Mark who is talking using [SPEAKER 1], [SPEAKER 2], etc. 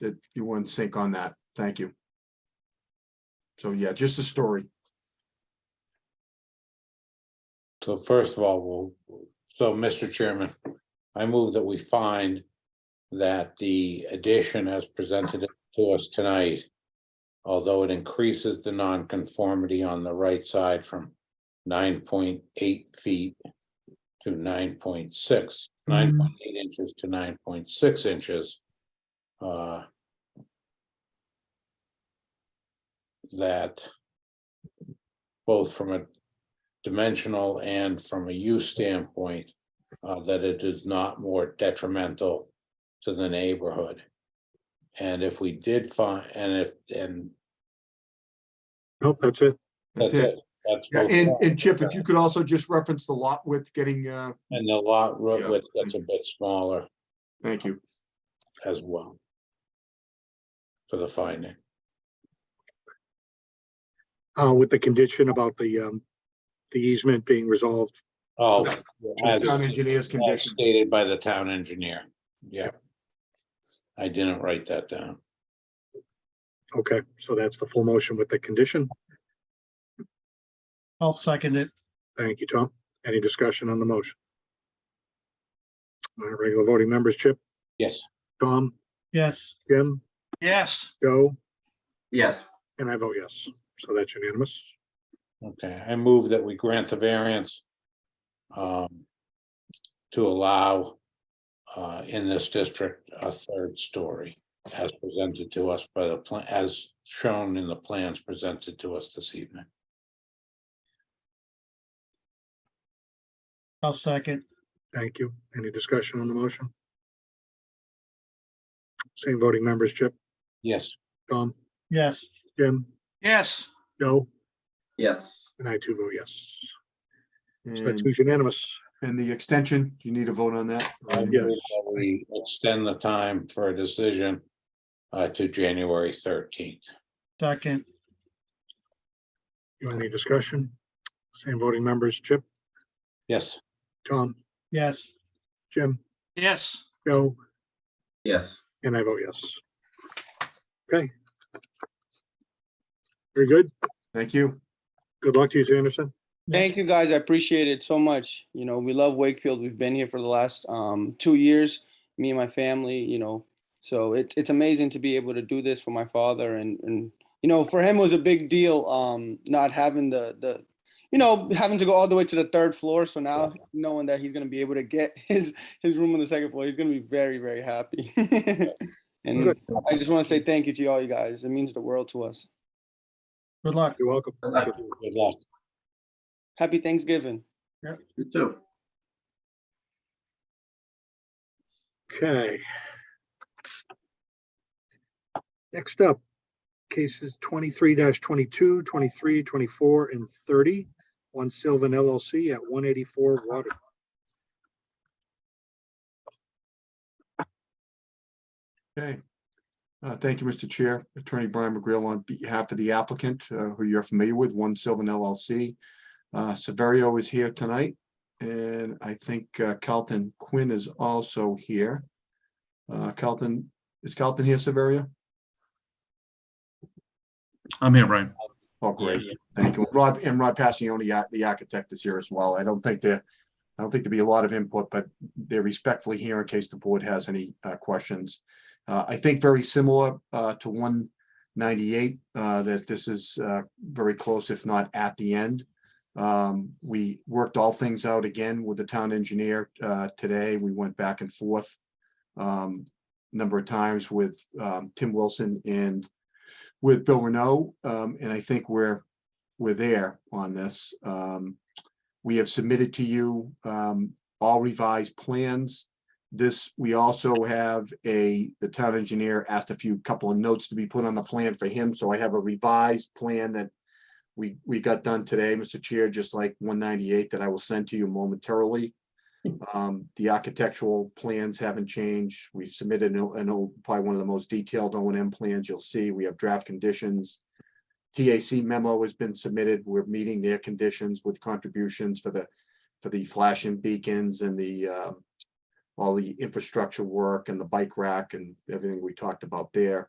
[SPEAKER 1] that you were in sync on that. Thank you. So yeah, just the story.
[SPEAKER 2] So first of all, we'll, so Mr. Chairman, I move that we find that the addition as presented to us tonight, although it increases the nonconformity on the right side from nine point eight feet to 9.6, 9.8 inches to nine point six inches. uh, That both from a dimensional and from a use standpoint, uh, that it is not more detrimental to the neighborhood. And if we did find, and if, and
[SPEAKER 3] Nope, that's it.
[SPEAKER 1] That's it.
[SPEAKER 2] That's
[SPEAKER 1] Yeah,
[SPEAKER 2] both
[SPEAKER 1] And,
[SPEAKER 2] sides.
[SPEAKER 1] and Chip, if you could also just reference the lot width getting, uh,
[SPEAKER 2] And the lot
[SPEAKER 1] Yeah.
[SPEAKER 2] ro- width, that's a bit smaller
[SPEAKER 1] thank you.
[SPEAKER 2] as well. For the finding,
[SPEAKER 3] Uh, with the condition about the, um, the easement being resolved.
[SPEAKER 2] oh, as
[SPEAKER 1] Town engineer's
[SPEAKER 2] as
[SPEAKER 1] condition.
[SPEAKER 2] stated by the town engineer, yeah. I didn't write that down.
[SPEAKER 3] Okay, so that's the full motion with the condition.
[SPEAKER 4] I'll second it.
[SPEAKER 3] Thank you, Tom. Any discussion on the motion? All right, regular voting members, Chip,
[SPEAKER 2] Yes,
[SPEAKER 3] Tom,
[SPEAKER 4] Yes.
[SPEAKER 3] Jim,
[SPEAKER 4] Yes.
[SPEAKER 3] Joe,
[SPEAKER 5] Yes,
[SPEAKER 3] and I vote yes. So that's unanimous.
[SPEAKER 2] okay, I move that we grant the variance. Um. To allow. Uh, in this district, a third story as presented to us by the plan, as shown in the plans presented to us this evening.
[SPEAKER 4] I'll second.
[SPEAKER 3] Thank you. Any discussion on the motion? Same voting members, Chip,
[SPEAKER 2] Yes,
[SPEAKER 3] Tom,
[SPEAKER 4] Yes.
[SPEAKER 3] Jim,
[SPEAKER 4] Yes.
[SPEAKER 3] Joe,
[SPEAKER 5] yes,
[SPEAKER 3] and I too vote yes. So that's
[SPEAKER 1] And
[SPEAKER 3] who's unanimous.
[SPEAKER 1] and the extension, do you need a vote on that?
[SPEAKER 2] I move
[SPEAKER 3] Yes.
[SPEAKER 2] that we extend the time for a decision. Uh, to January thirteenth.
[SPEAKER 4] Second.
[SPEAKER 3] You want any discussion? Same voting members, Chip,
[SPEAKER 2] Yes,
[SPEAKER 3] Tom,
[SPEAKER 4] Yes.
[SPEAKER 3] Jim,
[SPEAKER 4] Yes.
[SPEAKER 3] Joe,
[SPEAKER 5] yes.
[SPEAKER 3] and I vote yes. Okay. Very good.
[SPEAKER 1] Thank you.
[SPEAKER 3] Good luck to you, Anderson.
[SPEAKER 6] Thank you, guys. I appreciate it so much. You know, we love Wakefield. We've been here for the last um, two years, me and my family, you know. So it, it's amazing to be able to do this for my father. And, and you know, for him, it was a big deal um, not having the, the, you know, having to go all the way to the third floor. So now knowing that he's going to be able to get his, his room on the second floor, he's going to be very, very happy. and
[SPEAKER 3] Good.
[SPEAKER 6] I just want to say thank you to all you guys. It means the world to us.
[SPEAKER 4] Good luck.
[SPEAKER 3] You're welcome.
[SPEAKER 5] Uh,
[SPEAKER 2] good luck.
[SPEAKER 6] Happy Thanksgiving.
[SPEAKER 5] You too.
[SPEAKER 3] Okay. Next up, cases twenty-three 22 23, 24, and thirty. One Sylvan LLC at one eighty-four Water.
[SPEAKER 1] Okay. Uh, Thank you, Mr. Chair. Attorney Brian McGreal on behalf of the applicant, uh, who you're familiar with, One Sylvan LLC. Uh, Severio is here tonight, and I think uh, Carlton Quinn is also here. Uh, Carlton, is Carlton here, Severio?
[SPEAKER 7] I'm here, Brian.
[SPEAKER 1] Oh,
[SPEAKER 2] Yeah,
[SPEAKER 1] great. Thank you. Rob, and Rob Passione, uh, the architect is here as well. I don't think there, I don't think there'll be a lot of input, but they're respectfully here in case the board has any uh, questions. Uh, I think very similar uh, to one ninety-eight, that this is uh, very close, if not at the end. Um, We worked all things out again with the town engineer uh, today. We went back and forth um, number of times with um, Tim Wilson and with Bill Renault, um, and I think we're, we're there on this. Um, we have submitted to you, um, all revised plans. This, we also have a, the town engineer asked a few, couple of notes to be put on the plan for him, so I have a revised plan that we, we got done today, Mr. Chair, just like one ninety-eight that I will send to you momentarily. Um, the architectural plans haven't changed. We've submitted, an- an old- probably one of the most detailed O and M plans you'll see. We have draft conditions. TAC memo has been submitted. We're meeting their conditions with contributions for the, for the flashing beacons and the, uh, all the infrastructure work and the bike rack and everything we talked about there.